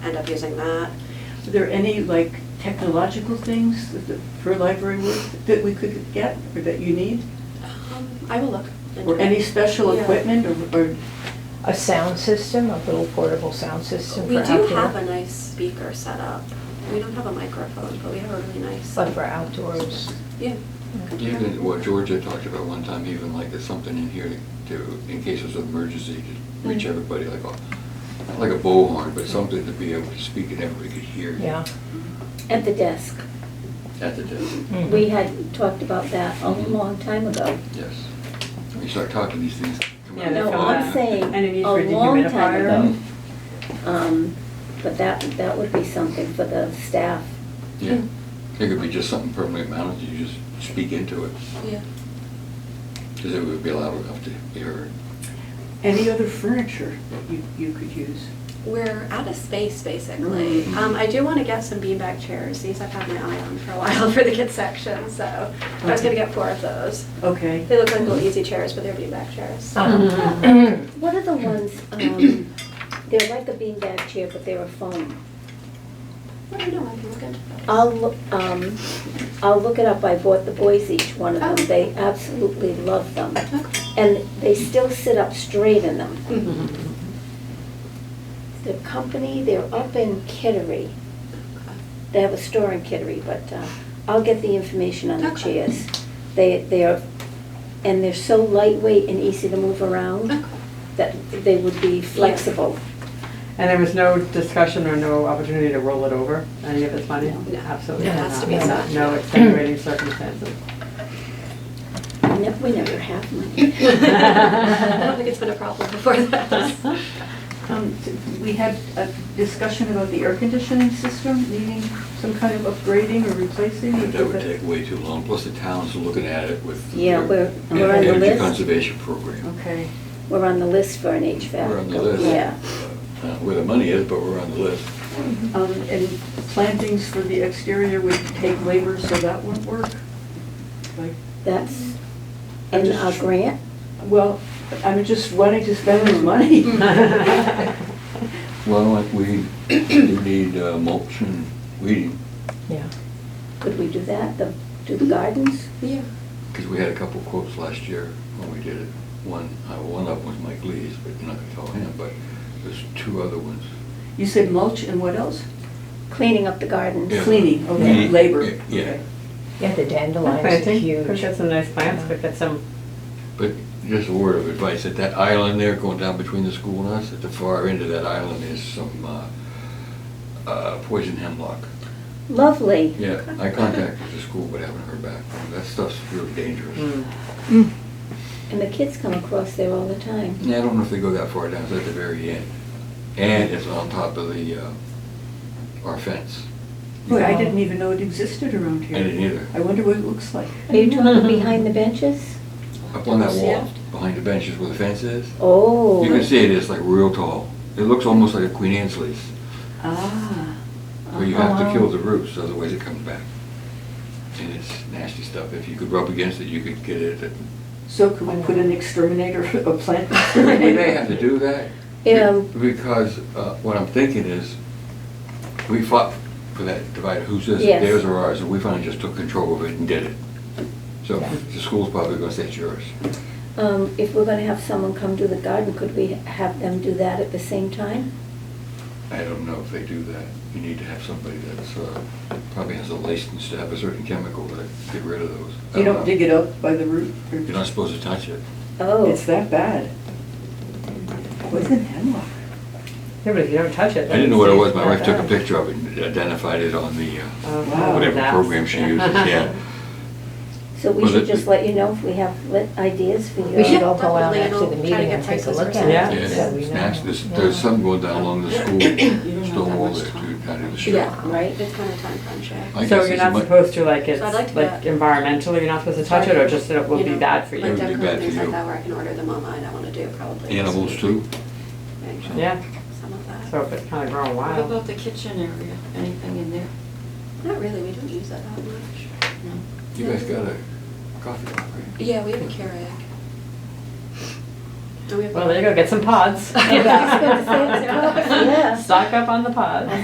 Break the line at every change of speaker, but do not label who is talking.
end up using that.
Are there any, like, technological things that the- for library work that we could get or that you need?
Um, I will look. into
Or any
it.
special
Yeah.
equipment or- or,
A sound system, a little portable sound system
We
for
do have a
outdoor,
nice speaker set up. We don't have a microphone, but we have a really nice.
but for outdoors.
Yeah. Could you have it?
Even what Georgia talked about one time, even like there's something in here to, in cases of emergency, to reach
Mhm.
Hmm.
everybody like a, not like a bullhorn, but something to be able to speak and everybody could hear. you
Yeah.
At the desk.
At the desk,
Mm-hmm.
Mhm.
We had talked about that a
Mhm.
long time ago.
yes. When you start talking, these things come
Yeah,
out.
they
No,
come
I'm
out.
saying
And a need
a
for a
long time
dehumidifier.
ago. Um, But that, that would be something for the staff.
Yeah, it could be just something permanently mounted, you just speak into it,
Yeah.
because it would be loud enough to be heard.
any other furniture that you, you could use?
We're out of space, basically.
Mm-hmm.
Mhm.
Um, I do want to get some beanbag chairs. These I've had my eye on for a while for the kids section, so I was gonna get four of those.
Okay.
They look like little easy chairs, but they're beanbag chairs.
Uh,
Mm-hmm.
Uh-huh.
What are the ones, um, they're like a beanbag chair, but they're a foam.
I don't know, I can look into that.
I'll, look. um, I'll look it up. I bought the boys each one of
Oh.
them. They absolutely love them.
Okay.
And they still sit up straight in them.
Mm-hmm.
The company, they're up in Kittery. They have a store in Kittery, but uh, I'll get the information on the
Okay.
chairs. They, they are, and they're so lightweight and easy to move around
Okay.
that they would be flexible.
And there was no discussion or no opportunity to roll it over, any of this money?
No.
Absolutely
No,
not.
it has to be
No-
such.
No extenuating circumstances.
We nev- We never have money.
I don't think it's been a problem before that.
Um, t- We had a discussion about the air conditioning system needing some kind of upgrading or replacing.
But That would take way too long, plus the town's looking at it with.
Yeah,
their-
we're-
and
we're on the
Energy
list.
conservation program.
Okay.
We're on the list for an HVAC.
We're on the list.
Yeah.
I don't know Where the money is, but we're on the list.
Um, And plantings for the exterior would take labor, so that wouldn't work? Like,
That's
I'm
in
just
our
tr-
grant.
Well, I'm just wanting to spend this money.
Well, like we do need uh, mulch and weeding,
Yeah.
Could we do that? The- Do the gardens?
Yeah.
because we had a couple quotes last year when we did it. One, uh, one of them was Mike Lee's, but you're not gonna tell him, but there's two other ones.
You said mulch and what else?
Cleaning up the gardens.
Yeah.
Cleaning, okay,
Yeah.
labor.
Yeah, yeah.
okay.
Yeah, the dandelions are
Planting, could
huge.
get some nice plants, could get some,
But just a word of advice, at that island there going down between the school and us, at the far end of that island is some uh, uh, poison hemlock.
Lovely.
Yeah, I contacted the school, but haven't heard back. from them. That stuff's really dangerous.
mm,
And the kids come across there all the time.
Yeah, I don't know if they go that far down, it's at the very end. And it's on top of the, uh, our fence.
Boy, I didn't even know it existed around here.
I didn't either.
I wonder what it looks like.
Are you talking behind the benches?
Up on that
See
wall,
it?
behind the benches where the fence is.
Oh.
You can see it, it's like real tall. It looks almost like a Queen Anne's leaf,
Ah,
where you have to kill the roots, otherwise it comes back. And it's nasty stuff. If you could rub against it, you could get it.
so could we put an exterminator, a plant
We
exterminator?
may have to do that.
Yeah.
Because uh, what I'm thinking is, we fought for that divide, who says
Yes.
theirs or ours, and we finally just took control of it and did it. So the school's probably gonna say it's yours.
Um, if we're gonna have someone come do the garden, could we have them do that at the same time?
I don't know if they do that. You need to have somebody that's, uh, probably has a license to have a certain chemical to get rid of those. I
You don't
know.
dig it up by the root? or-
You're not supposed to touch it.
Oh,
It's that bad. Poison hemlock.
yeah, but if you don't touch
I
it.
didn't know what it was, my
it's
wife took a
not
picture of it and identified it on the,
bad.
uh,
Oh,
Wow.
whatever
that's-
program she uses, yeah.
so we
Well,
should
it-
just let you know if we have lit ideas for you.
We should
Yeah,
all go out
definitely, and
after
I'll
the
try to
meeting
get
and take a
prices
look
or
at
Yeah,
it. so we
it's
know.
nasty. There's,
Yeah.
there's some going down along the school,
have
stone
that
wall
much
there
time.
too, down in the street.
Yeah,
Right.
It's kind of time crunch, yeah.
I guess
So you're
it's
not
mu-
supposed to, like, it's,
So I'd like to
like
do
environmentally, you're not supposed to touch it, or just it will
You
be
know,
bad for
Like
It would
you?
that- be
decorative
bad for
things like
you.
that where I can order them online, I want to do probably.
Animals too.
Maybe
Yeah,
Some of that.
so if it's kind of growing
What
wild.
about the kitchen area? Anything in there?
Not really, we don't use that that much.
No.
You guys got a coffee shop, right?
Yeah, we have a Keurig. Do we have?
Well, there you go, get some pods.
Yeah, I was gonna say, it's pods,
yeah.
Stock up on the pods.